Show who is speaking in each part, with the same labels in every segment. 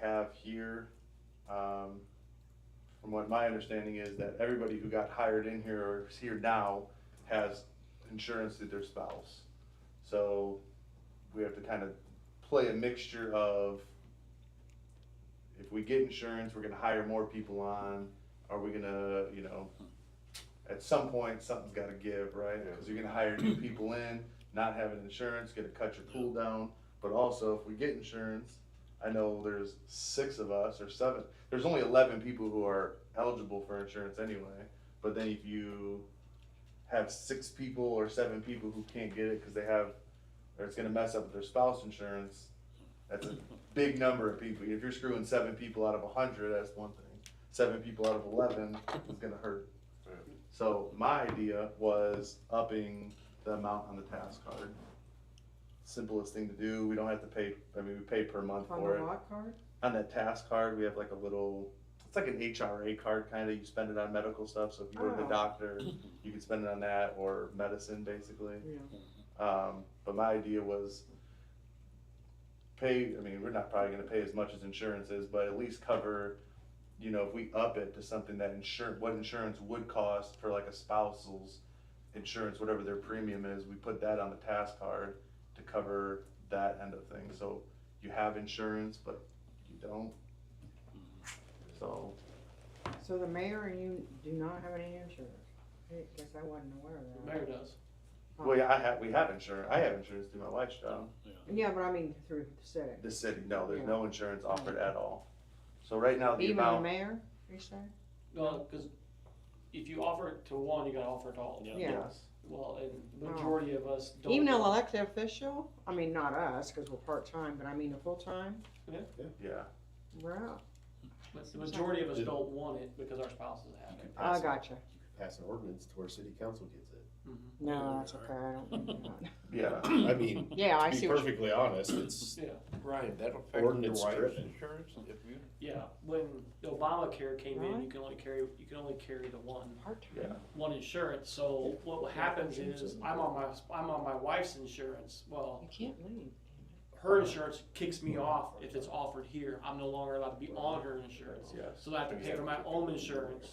Speaker 1: have here, um, from what my understanding is that everybody who got hired in here or is here now has insurance through their spouse. So we have to kind of play a mixture of if we get insurance, we're gonna hire more people on, are we gonna, you know, at some point, something's gotta give, right? Cause you're gonna hire new people in, not having insurance, gonna cut your pool down, but also if we get insurance, I know there's six of us or seven, there's only eleven people who are eligible for insurance anyway. But then if you have six people or seven people who can't get it because they have, or it's gonna mess up with their spouse insurance, that's a big number of people. If you're screwing seven people out of a hundred, that's one thing. Seven people out of eleven is gonna hurt.
Speaker 2: Yeah.
Speaker 1: So my idea was upping the amount on the task card. Simplest thing to do. We don't have to pay. I mean, we pay per month
Speaker 3: On
Speaker 1: for
Speaker 3: the
Speaker 1: it
Speaker 3: lock card?
Speaker 1: on that task card, we have like a little, it's like an HRA card kind of, you spend it on medical stuff, so if you go to the
Speaker 3: Oh.
Speaker 1: doctor, you can spend it on that or medicine basically.
Speaker 3: Yeah.
Speaker 1: Um, but my idea was pay, I mean, we're not probably gonna pay as much as insurance is, but at least cover, you know, if we up it to something that insure, what insurance would cost for like a spouse's insurance, whatever their premium is, we put that on the task card to cover that end of things. So you have insurance, but you don't. So,
Speaker 3: So the mayor and you do not have any insurance? I guess I wasn't aware of that.
Speaker 4: Mayor does.
Speaker 3: Oh.
Speaker 1: well, yeah, I have, we have insurance, I have insurance through my wife's job.
Speaker 3: Yeah, but I mean through the city.
Speaker 1: The city, no, there's no insurance offered at all. So right now, the
Speaker 3: Even the
Speaker 1: amount,
Speaker 3: mayor, you say?
Speaker 4: No, because if you offer it to one, you gotta offer it to all.
Speaker 3: Yeah.
Speaker 1: yes.
Speaker 4: Well, and the majority of us don't.
Speaker 3: Oh. Even an elected official? I mean, not us, cause we're part-time, but I mean a full-time,
Speaker 1: Yeah,
Speaker 3: we're out.
Speaker 4: But the majority of us don't want it because our spouses have
Speaker 2: You
Speaker 4: it.
Speaker 2: could
Speaker 3: I
Speaker 2: pass,
Speaker 3: gotcha.
Speaker 2: you could pass an ordinance to where city council gets it.
Speaker 4: Mhm.
Speaker 3: No, that's okay, I don't. want that.
Speaker 1: yeah.
Speaker 2: I mean,
Speaker 3: Yeah, Hmm. I
Speaker 2: to
Speaker 3: see
Speaker 2: be
Speaker 3: what you
Speaker 2: perfectly honest, it's,
Speaker 4: Yeah,
Speaker 5: Ryan, that'll affect your
Speaker 2: Ordinance
Speaker 5: wife's
Speaker 2: driven.
Speaker 5: insurance if you,
Speaker 4: yeah. When Obamacare came in,
Speaker 3: Really?
Speaker 4: you can only carry, you can only carry the one,
Speaker 3: part-time.
Speaker 4: one insurance. So what happens is I'm on my, I'm on my wife's insurance. Well,
Speaker 3: You can't leave.
Speaker 4: her insurance kicks me off if it's offered here. I'm no longer allowed to be on her insurance.
Speaker 1: Yes.
Speaker 4: So I have to pay for my own insurance.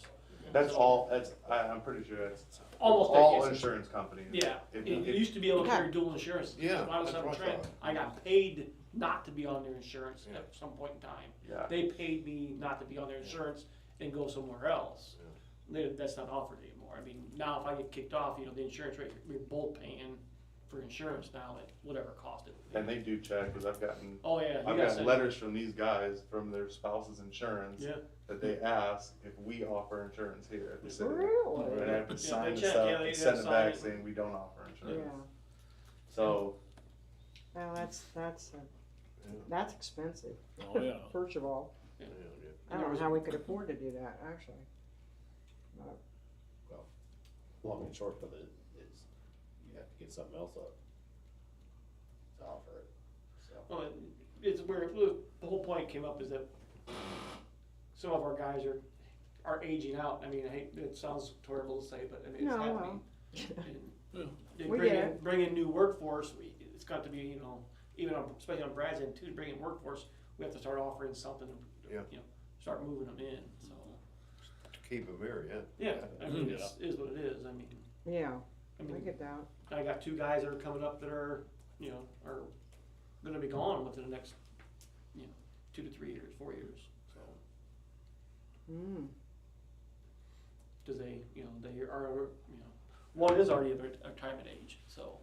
Speaker 1: That's all, that's, I, I'm pretty sure that's
Speaker 4: Almost. that
Speaker 1: all
Speaker 4: case.
Speaker 1: insurance companies.
Speaker 4: Yeah,
Speaker 1: If-
Speaker 4: it, it
Speaker 1: if-
Speaker 4: used to be able to
Speaker 3: Okay.
Speaker 4: carry dual insurance.
Speaker 5: Yeah,
Speaker 4: When I was
Speaker 5: that's
Speaker 4: on
Speaker 5: what I
Speaker 4: Trent,
Speaker 5: thought.
Speaker 4: I got paid not to be on their insurance
Speaker 5: Yeah.
Speaker 4: at some point in time.
Speaker 1: Yeah,
Speaker 4: They paid me not to be on their insurance and go somewhere else. They- That's not offered anymore. I mean, now if I get kicked off, you know, the insurance rate, we're both paying for insurance now at whatever cost it would
Speaker 1: and
Speaker 4: be.
Speaker 1: they do check, cause I've gotten,
Speaker 4: Oh, yeah, you
Speaker 1: I've
Speaker 4: gotta
Speaker 1: gotten
Speaker 4: send,
Speaker 1: letters from these guys, from their spouse's insurance.
Speaker 4: Yeah.
Speaker 1: That they ask if we offer insurance here at the city. We're
Speaker 3: Really?
Speaker 1: gonna have
Speaker 4: Yeah,
Speaker 1: to sign
Speaker 4: they
Speaker 1: this up,
Speaker 4: check, yeah, they
Speaker 1: and
Speaker 4: gotta
Speaker 1: send it
Speaker 4: sign
Speaker 1: back
Speaker 4: it.
Speaker 1: saying we don't offer
Speaker 3: Yeah,
Speaker 1: insurance. So,
Speaker 3: well, that's, that's, a-
Speaker 5: Yeah.
Speaker 3: that's expensive,
Speaker 6: Oh, yeah.
Speaker 3: first of all.
Speaker 5: you know, you-
Speaker 3: I don't know how we could afford to do that, actually.
Speaker 2: long and short of it is, you have to get something else up to offer it, so.
Speaker 4: well, it- oh, it's where, the whole point came up is that some of our guys are, are aging out. I mean, I hate, it sounds terrible to say, but I mean, it's
Speaker 3: No,
Speaker 4: happening.
Speaker 3: well.
Speaker 6: Yeah.
Speaker 4: They
Speaker 3: We
Speaker 4: bring
Speaker 3: get
Speaker 4: in, bring in new workforce, we, it's got to be, you know, even on, especially on Brad's end too, to bring in workforce, we have to start offering something, to,
Speaker 5: Yeah.
Speaker 4: you know, start moving them in, so.
Speaker 5: to keep them here, yeah.
Speaker 4: Yeah, I
Speaker 3: Mm-hmm.
Speaker 4: mean, it's, is what it is, I mean,
Speaker 3: Yeah,
Speaker 4: I
Speaker 3: I
Speaker 4: mean,
Speaker 3: get that.
Speaker 4: I got two guys that are coming up that are, you know, are gonna be gone within the next, you know, two to three years, four years, so.
Speaker 3: Mm.
Speaker 4: Cause they, you know, they are, you know, one is already of a retirement age, so.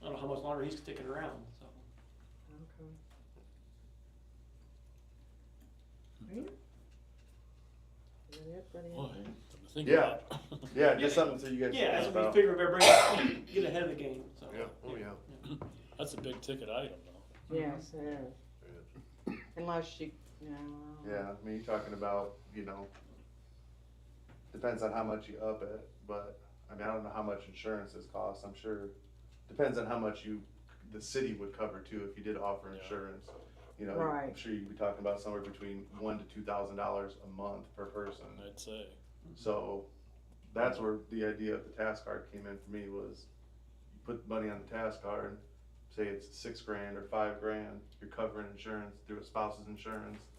Speaker 4: I don't know how much longer he's sticking around, so.
Speaker 3: Okay. Is that it for the-
Speaker 6: Boy, something to think
Speaker 1: Yeah.
Speaker 6: about.
Speaker 1: yeah, just something so you guys.
Speaker 4: Yeah,
Speaker 1: think
Speaker 4: that's what we
Speaker 1: about.
Speaker 4: figure we're bringing, get ahead of the game, so.
Speaker 5: Yeah, oh, yeah.
Speaker 6: That's a big ticket item, though.
Speaker 3: Yes, it is. Unless you, no.
Speaker 1: Yeah, I mean, you're talking about, you know, depends on how much you up it, but, I mean, I don't know how much insurance this costs, I'm sure. Depends on how much you, the city would cover too, if you did offer
Speaker 6: Yeah.
Speaker 1: insurance. You know, I'm
Speaker 3: Right.
Speaker 1: sure you'd be talking about somewhere between one to two thousand dollars a month per person.
Speaker 6: I'd say.
Speaker 1: So that's where the idea of the task card came in for me was you put money on the task card, say it's six grand or five grand, you're covering insurance through a spouse's insurance,